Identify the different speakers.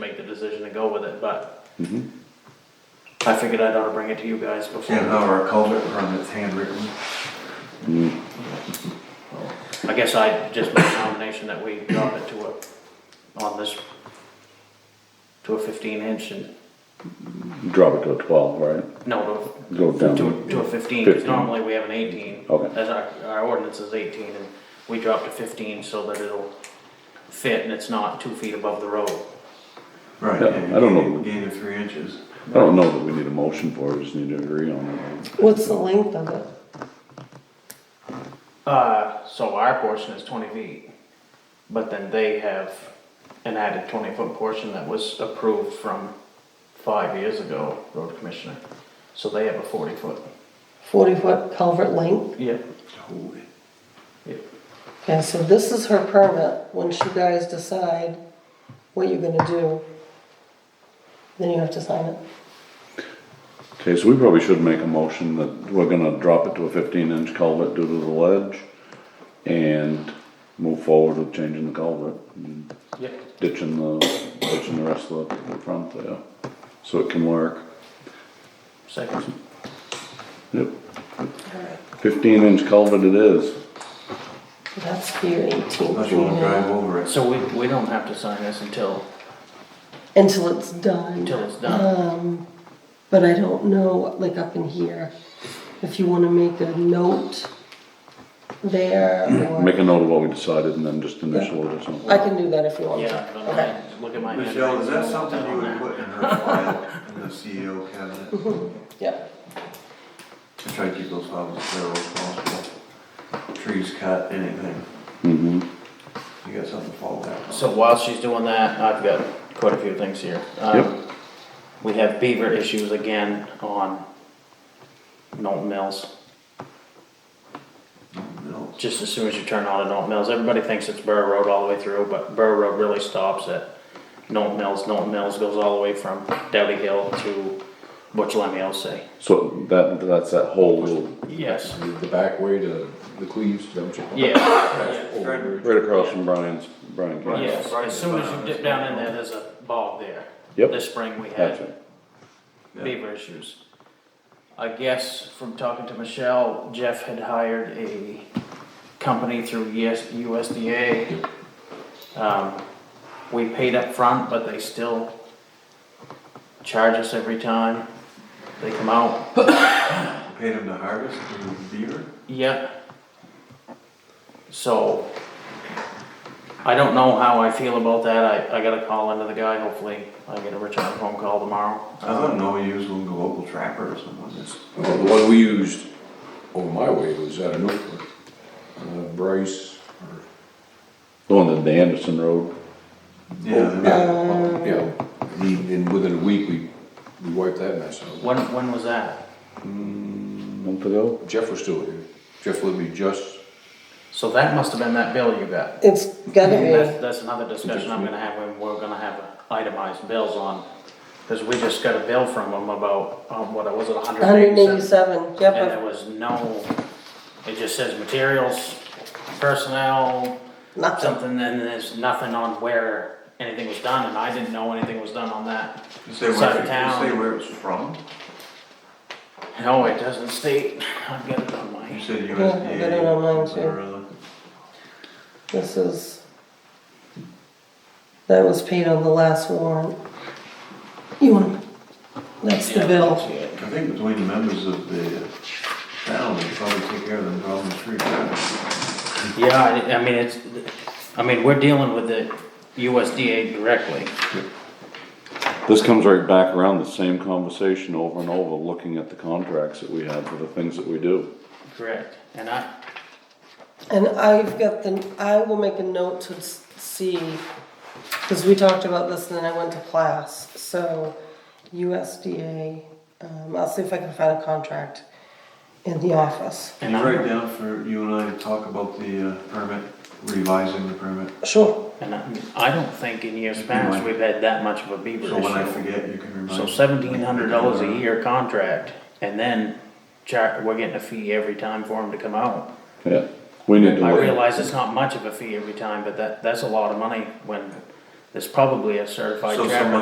Speaker 1: make the decision to go with it, but
Speaker 2: Mm-hmm.
Speaker 1: I figured I'd ought to bring it to you guys before.
Speaker 3: And now our culvert permit's handwritten.
Speaker 1: I guess I just make a nomination that we drop it to a, on this, to a fifteen inch and,
Speaker 2: Drop it to a twelve, right?
Speaker 1: no, to,
Speaker 2: Go
Speaker 1: to,
Speaker 2: down.
Speaker 1: a- to a fifteen, because
Speaker 2: 15.
Speaker 1: normally we have an eighteen.
Speaker 2: Okay.
Speaker 1: As our, our ordinance is eighteen, and we dropped to fifteen so that it'll fit and it's not two feet above the road.
Speaker 3: Right.
Speaker 2: Yeah,
Speaker 3: and
Speaker 2: I don't know.
Speaker 3: Gain of three inches.
Speaker 2: I don't know that we need a motion for it, we just need to agree on it.
Speaker 4: What's the length of it?
Speaker 1: Uh, so our portion is twenty feet, but then they have an added twenty foot portion that was approved from five years ago, road commissioner. So they have a forty foot.
Speaker 4: Forty foot culvert length?
Speaker 1: Yep.
Speaker 3: Holy.
Speaker 1: Yep.
Speaker 4: Okay, so this is her permit, once you guys decide what you're gonna do, then you have to sign it.
Speaker 2: Okay, so we probably should make a motion that we're gonna drop it to a fifteen inch culvert due to the ledge and move forward with changing the culvert. and
Speaker 1: Yep.
Speaker 2: Ditching the, ditching the rest of the front there, so it can work.
Speaker 1: Second.
Speaker 2: Yep, fifteen inch culvert it is.
Speaker 4: That's for your eighteen
Speaker 3: Unless
Speaker 4: feet
Speaker 3: you wanna drive
Speaker 4: in.
Speaker 3: over it.
Speaker 1: So we, we don't have to sign this until,
Speaker 4: until it's done. Um,
Speaker 1: until it's done.
Speaker 4: But I don't know, like up in here, if you wanna make a note there
Speaker 2: Make
Speaker 4: or,
Speaker 2: a note of what we decided and then just initial it or something.
Speaker 4: I can do that if you want.
Speaker 1: Yeah, I don't know.
Speaker 4: Okay.
Speaker 1: look at my. hand.
Speaker 3: Michelle, is that something you would put in her file in the CEO cabinet?
Speaker 4: Yeah,
Speaker 3: To try to keep those files as thorough as possible. Trees cut, anything.
Speaker 2: Mm-hmm.
Speaker 3: You got something to fall back on.
Speaker 1: So while she's doing that, I've got quite a few things here. Um,
Speaker 2: Yep.
Speaker 1: We have beaver issues again on Norton Mills.
Speaker 3: No.
Speaker 1: just as soon as you turn on to Norton Mills, everybody thinks it's Burr Road all the way through, but Burr Road really stops at Norton Mills. Norton Mills goes all the way from Dowdy Hill to Butch Lemmy say.
Speaker 2: So that, that's that whole little,
Speaker 1: Yes.
Speaker 5: The back way to the Cleves dumpster.
Speaker 1: Yeah,
Speaker 5: Over.
Speaker 2: right across from Brian's, Brian Campbell.
Speaker 1: yes. As soon as you dip down in there, there's a bog there.
Speaker 2: Yep.
Speaker 1: This spring we
Speaker 2: Gotcha.
Speaker 1: had
Speaker 3: Yeah.
Speaker 1: beaver issues. I guess from talking to Michelle, Jeff had hired a company through US USDA. Um, we paid up front, but they still charge us every time they come out.
Speaker 3: Paid him to harvest the beaver?
Speaker 1: Yep. So, I don't know how I feel about that. I, I gotta call into the guy. Hopefully, I get a return phone call tomorrow.
Speaker 3: I thought no use was a local trapper or someone. It's-
Speaker 5: Well, the one we used over my way was out of Norfolk, uh, Bryce, or,
Speaker 2: Going to the Anderson Road.
Speaker 3: Oh, Yeah,
Speaker 5: yeah,
Speaker 3: they're-
Speaker 5: up- Oh, yeah. He, and within a week, we, we wiped that mess out.
Speaker 1: When, when was that?
Speaker 2: month ago.
Speaker 5: Jeff was still here, Jeff Libby just,
Speaker 1: So that must have been that bill you got.
Speaker 4: it's gotta
Speaker 1: And That's,
Speaker 4: be,
Speaker 1: that's another discussion I'm gonna have, when we're gonna have itemized bills on, cause we just got a bill from them about, um, what, was it hundred
Speaker 4: hundred
Speaker 1: and
Speaker 4: and
Speaker 1: eighty-seven?
Speaker 4: eighty-seven, yep,
Speaker 1: And
Speaker 4: I've
Speaker 1: there was no, it just says materials, personnel,
Speaker 4: Nothing.
Speaker 1: something, and there's nothing on where anything was done, and I didn't know anything was done on that.
Speaker 3: You say
Speaker 1: Side
Speaker 3: where,
Speaker 1: of
Speaker 3: you
Speaker 1: town.
Speaker 3: say where it's from?
Speaker 1: No, it doesn't state, I've got it on
Speaker 3: You
Speaker 1: my,
Speaker 3: said
Speaker 4: I got
Speaker 3: USDA.
Speaker 4: it online,
Speaker 3: something or other.
Speaker 4: This is, that was paid on the last warrant. You want, that's the bill.
Speaker 3: I think between the members of the town, they probably take care of them problems free.
Speaker 1: yeah, I, I mean, it's, I mean, we're dealing with the USDA directly.
Speaker 2: This comes right back around the same conversation over and over, looking at the contracts that we have for the things that we do.
Speaker 1: Correct. And I,
Speaker 4: And I've got the, I will make a note to s- see, because we talked about this and then I went to class, so USDA, um, I'll see if I can find a contract in the office.
Speaker 3: Can
Speaker 1: and
Speaker 3: you
Speaker 1: I'm,
Speaker 3: write down for you and I to talk about the uh, permit, revising the permit?
Speaker 4: Sure,
Speaker 1: and I, I don't think in years past we've had that much of a beaver
Speaker 3: So when I
Speaker 1: issue.
Speaker 3: forget, you can remind.
Speaker 1: So
Speaker 3: me.
Speaker 1: seventeen hundred dollars a year contract, and then char, we're getting a fee every time for them to come out.
Speaker 2: Yeah, we need to
Speaker 1: I
Speaker 2: look,
Speaker 1: realize it's not much of a fee every time, but that, that's a lot of money when There's probably a certified
Speaker 3: So
Speaker 1: trapper
Speaker 3: someone